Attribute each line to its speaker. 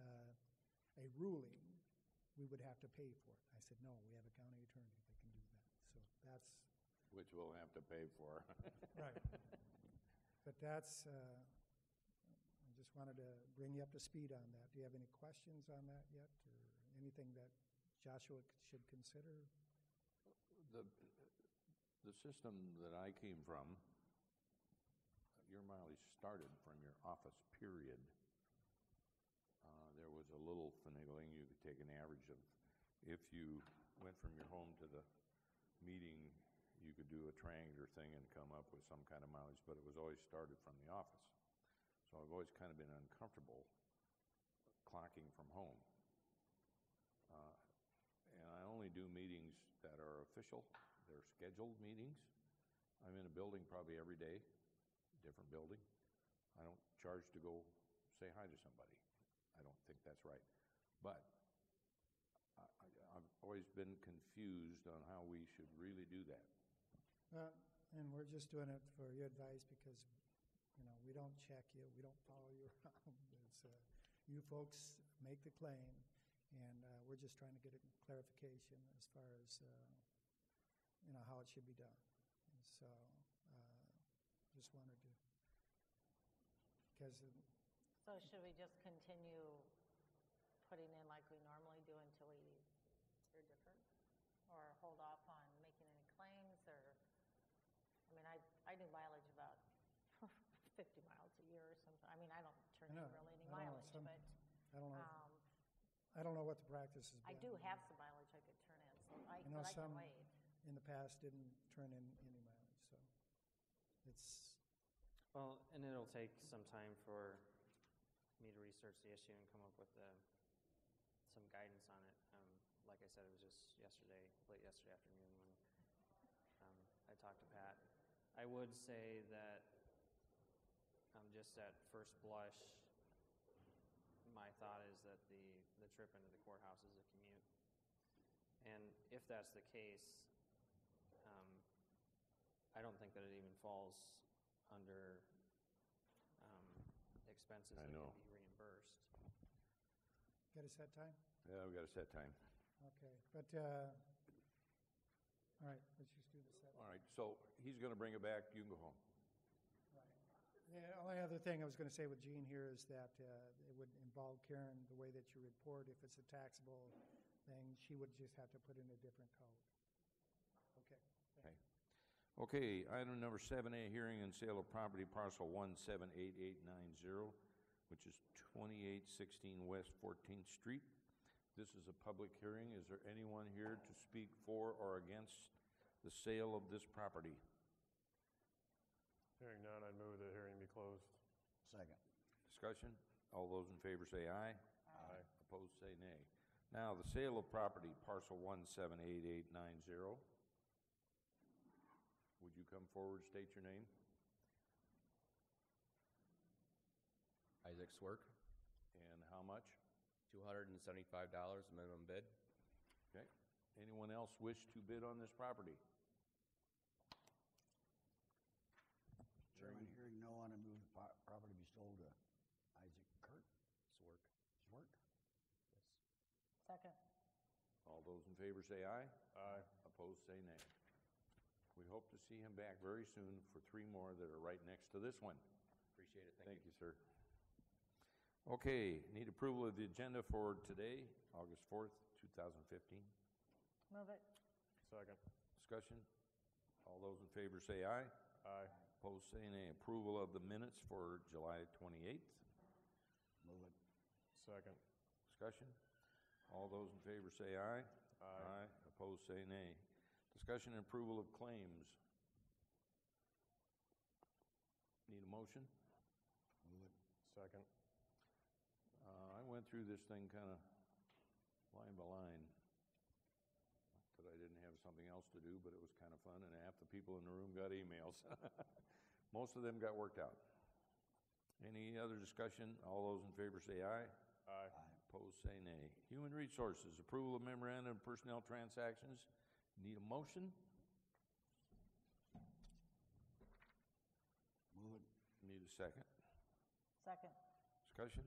Speaker 1: uh, ruling, we would have to pay for it. I said, no, we have a county attorney that can do that. So that's,
Speaker 2: which we'll have to pay for.
Speaker 1: right. But that's, uh, I just wanted to bring you up to speed on that. Do you have any questions on that yet, or anything that Joshua should consider?
Speaker 2: The, the system that I came from, your mileage started from your office period. Uh, There was a little finagling, you could take an average of, if you went from your home to the meeting, you could do a triangular thing and come up with some kind of mileage, but it was always started from the office. So I've always kind of been uncomfortable clocking from home. Uh, And I only do meetings that are official, they're scheduled meetings. I'm in a building probably every day, different building. I don't charge to go say hi to somebody. I don't think that's right. But I, I, I've always been confused on how we should really do that.
Speaker 1: Uh, And we're just doing it for your advice because, you know, we don't check you, we don't follow you around. It's, uh, you folks make the claim, and uh, we're just trying to get a clarification as far as, uh, you know, how it should be done. And so, uh, just wanted to, because,
Speaker 3: So should we just continue putting in like we normally do until we hear different? Or hold off on making any claims or, I mean, I, I do mileage about fifty miles a year or something. I mean, I don't turn
Speaker 1: I
Speaker 3: in
Speaker 1: know,
Speaker 3: really
Speaker 1: I don't
Speaker 3: any
Speaker 1: know,
Speaker 3: mileage,
Speaker 1: some-
Speaker 3: but,
Speaker 1: I don't know,
Speaker 3: um,
Speaker 1: I don't know what the practice has
Speaker 3: I
Speaker 1: been.
Speaker 3: do have some mileage I could turn in, so I,
Speaker 1: I know
Speaker 3: but I
Speaker 1: some-
Speaker 3: can wait.
Speaker 1: In the past, didn't turn in any mileage, so it's,
Speaker 4: Well, and it'll take some time for me to research the issue and come up with uh some guidance on it. Um, like I said, it was just yesterday, late yesterday afternoon when um, I talked to Pat. I would say that um, just at first blush, my thought is that the, the trip into the courthouse is a commute. And if that's the case, um, I don't think that it even falls under um, expenses
Speaker 2: I
Speaker 4: that can
Speaker 2: know.
Speaker 4: be reimbursed.
Speaker 1: got a set time?
Speaker 2: Yeah, we've got a set time.
Speaker 1: Okay, but, uh, all right, let's just do the set.
Speaker 2: All right, so he's gonna bring it back, you can go home.
Speaker 1: The only other thing I was gonna say with Gene here is that, uh, it would involve Karen, the way that you report, if it's a taxable thing, she would just have to put in a different code. Okay.
Speaker 2: Okay. Okay, item number seven A, hearing and sale of property parcel one seven eight eight nine zero, which is twenty-eight sixteen West Fourteenth Street. This is a public hearing. Is there anyone here to speak for or against the sale of this property?
Speaker 5: Hearing none, I'd move the hearing be closed.
Speaker 6: Second.
Speaker 2: Discussion? All those in favor say aye.
Speaker 5: Aye.
Speaker 2: Opposed, say nay. Now, the sale of property parcel one seven eight eight nine zero. Would you come forward, state your name?
Speaker 7: Isaac Swerk,
Speaker 2: And how much?
Speaker 7: two hundred and seventy-five dollars minimum bid.
Speaker 2: Okay. Anyone else wish to bid on this property?
Speaker 6: Chairman, hearing no one, I move the po- property be sold to Isaac Kurt. Swerk. Swerk?
Speaker 3: Second.
Speaker 2: All those in favor say aye.
Speaker 5: Aye.
Speaker 2: Opposed, say nay. We hope to see him back very soon for three more that are right next to this one.
Speaker 7: Appreciate it, thank you.
Speaker 2: Thank you, sir. Okay, need approval of the agenda for today, August 4th, 2015.
Speaker 3: Move it.
Speaker 5: Second.
Speaker 2: Discussion? All those in favor say aye.
Speaker 5: Aye.
Speaker 2: Opposed, say nay. Approval of the minutes for July 28th.
Speaker 6: Move it.
Speaker 5: Second.
Speaker 2: Discussion? All those in favor say aye. Aye. Opposed, say nay. Discussion and approval of claims. Need a motion?
Speaker 6: Move it.
Speaker 5: Second.
Speaker 2: Uh, I went through this thing kind of line by line. Not That I didn't have something else to do, but it was kind of fun, and half the people in the room got emails. Most of them got worked out. Any other discussion? All those in favor say aye.
Speaker 5: Aye.
Speaker 2: Opposed, say nay. Human Resources, approval of memorandum of personnel transactions. Need a motion?
Speaker 6: Move it.
Speaker 2: Need a second.
Speaker 3: Second.
Speaker 2: Discussion?